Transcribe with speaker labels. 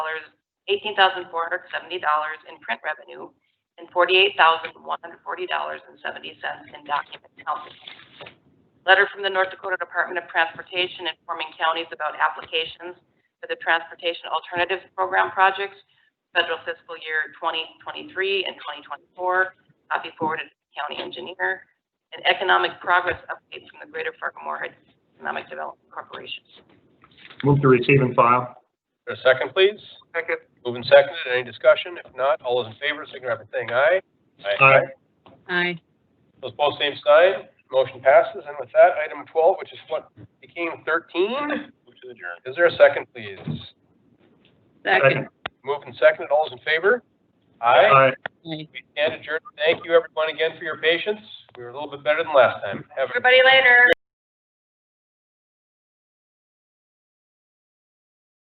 Speaker 1: eighteen thousand four hundred seventy dollars in print revenue, and forty-eight thousand one hundred forty dollars and seventy cents in document counting. Letter from the North Dakota Department of Transportation informing counties about applications for the Transportation Alternatives Program projects, federal fiscal year twenty twenty-three and twenty twenty-four, copy forwarded to the county engineer, and economic progress update from the Greater Fargo-Moorhead Economic Development Corporation.
Speaker 2: Move to receive and file.
Speaker 3: Is there a second, please?
Speaker 2: Second.
Speaker 3: Moving seconded, any discussion? If not, all those in favor, signify by saying aye.
Speaker 2: Aye.
Speaker 4: Aye.
Speaker 3: Those opposed, same sign. Motion passes, and with that, item twelve, which is what became thirteen. Which is adjourned. Is there a second, please?
Speaker 4: Second.
Speaker 3: Moving seconded, all those in favor? Aye.
Speaker 2: Aye.
Speaker 4: Aye.
Speaker 3: We stand adjourned. Thank you, everyone, again for your patience. We were a little bit better than last time. Have a
Speaker 1: Everybody later.